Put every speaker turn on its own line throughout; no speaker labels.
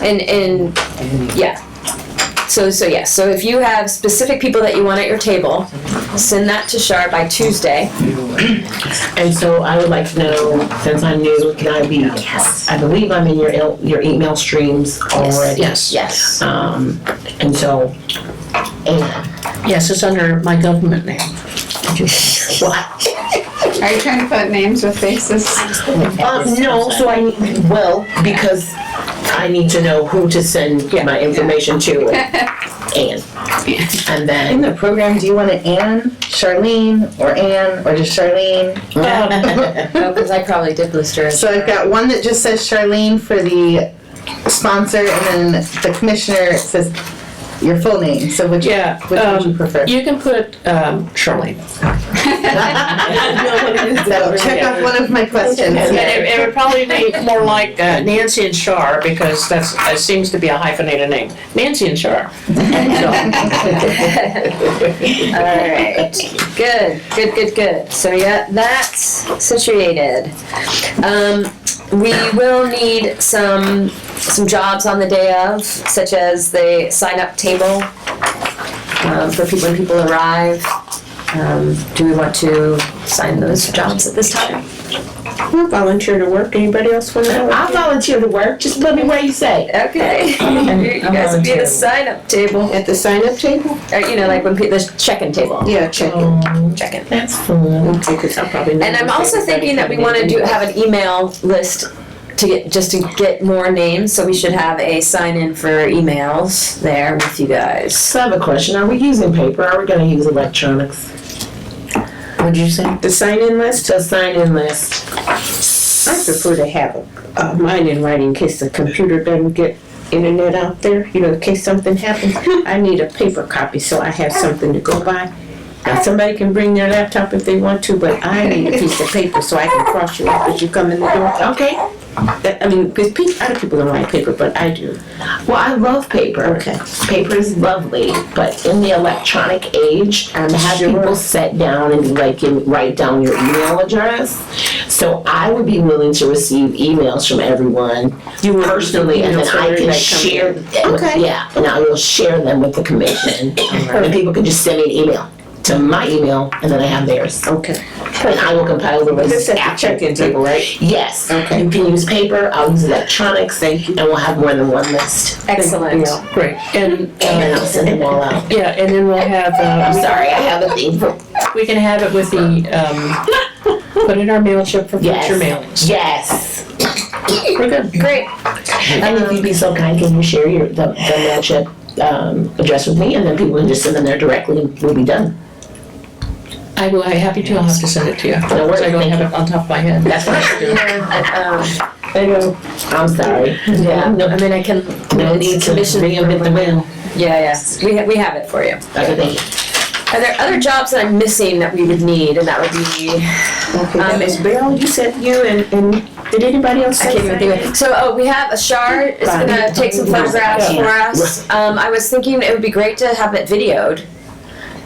And, and, yeah. So, so yes, so if you have specific people that you want at your table, send that to Shar by Tuesday.
And so I would like to know, since I'm new, can I be, I believe I'm in your, el- your email streams already.
Yes,
Yes.
Um, and so, and,
yes, it's under my government name.
well,
Are you trying to put names with faces?
uh, no, so I, well, because I need to know who to send my information to and, and, and
In
then,
the program, do you want it Anne, Charlene, or Anne, or just Charlene?
Oh, because I probably did list her. as-
So I've got one that just says Charlene for the sponsor, and then the commissioner, it says your full name, so which, which
Yeah,
would you
um,
prefer?
you can put, um, Charlene.
So check off one of my questions.
And it, it would probably be more like uh, Nancy and Shar, because that's, it seems to be a hyphenated name, Nancy and Shar.
All right, good, good, good, good. So yeah, that's situated. Um, we will need some, some jobs on the day of, such as the sign-up table um, for people when people arrive. Um, do we want to sign those jobs at this time?
Volunteer to work, anybody else want to go?
I'll volunteer to work, just let me where you say.
Okay. You guys would be at the sign-up table,
At the sign-up table?
or, you know, like when people, the check-in table,
Yeah, check.
check-in.
That's fun.
And I'm also thinking that we want to do, have an email list to get, just to get more names, so we should have a sign-in for emails there with you guys.
So I have a question. Are we using paper? Are we gonna use electronics?
What'd you say?
The sign-in list? The sign-in list.
I prefer to have uh, mine in writing in case the computer doesn't get internet out there, you know, in case something happens. I need a paper copy so I have something to go by. Now, somebody can bring their laptop if they want to, but I need a piece of paper so I can cross you off as you come in the door.
Okay.
That- I mean, because other people don't like paper, but I do.
Well, I love paper.
Okay.
Paper is lovely, but in the electronic age, i have
sure.
people sit down and like and write down your email address. So I would be willing to receive emails from everyone
You want
personally, and
emails
then
for
I can
everybody coming
share.
in.
them with-
Okay.
Yeah, and I will share them with the commission, and people can just send me an email to my email, and then I have theirs.
Okay.
And I will compile the list.
This at the
after.
check-in table, right?
Yes.
Okay.
You can use paper, I'll use electronics, and we'll have more than one list.
Excellent.
Great, and,
And I'll
uh,
send them all out.
yeah, and then we'll have, uh,
I'm
we-
sorry, I have a thing for,
we can have it with the, um, put in our mail chip for
Yes.
future mailings.
yes.
We're good.
Great.
And if you'd be so kind, can you share your, the, the mail chip, um, address with me, and then people can just send them there directly, and we'll be done.
I will, I'm happy to, I'll have to send it to you.
No worries,
I don't
thank
have it on top of my head.
That's what I do.
Yeah,
There you go. I'm sorry.
um, yeah, no, I mean, I can,
No need to
commission-
reinvent the wheel.
yeah, yes, we, ha- we have it for you.
Okay, thank you.
Are there other jobs that I'm missing that we would need, and that would be, Um,
Okay, that was Belle, you said you and, and did anybody else
I
say
can't even think of it. So, oh, we have, Ashar is gonna take some photographs for us. Um, I was thinking it would be great to have it videoed.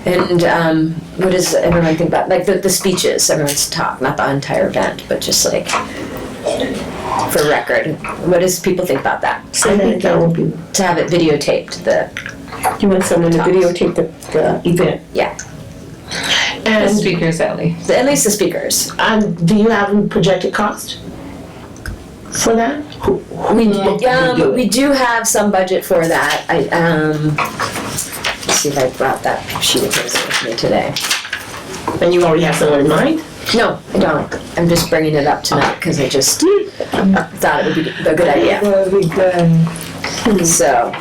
And, um, what does everyone think about, like, the, the speeches, everyone's talk, not the entire event, but just like, for record. What does people think about that?
I think that would be,
To have it videotaped, the,
you want someone to videotape the, the event?
And,
speakers, Ellie.
the- at least the speakers.
um, do you have a projected cost for that? Who- who
We,
would do
um,
it?
we do have some budget for that. I, um, let's see if I brought that sheet of paper with me today.
And you already have someone in mind?
No, I don't. I'm just bringing it up tonight because I just thought it would be a good idea.
Well, we, um,
So,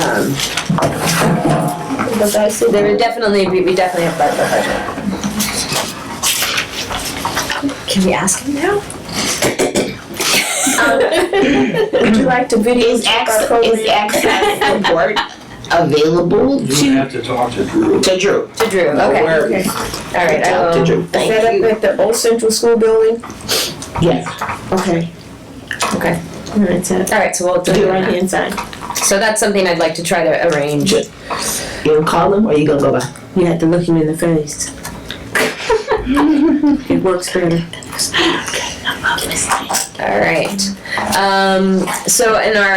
um, there would definitely, be- we definitely have that budget. Can we ask him now?
would you like to
Is
videotape our
access,
program?
is access support available
You
to,
have to talk to Drew.
to Drew?
To Drew, okay. All
Word.
right, um, I
Talk to
will.
Drew,
Set
thank
up
you.
at the old central school building?
Yes.
Okay.
Okay.
All right, so,
All right, so we'll do
do it right
that.
here inside.
So that's something I'd like to try to arrange.
You gonna call him or you gonna go by?
You have to look him in the face. It works better.
All right. Um, so in our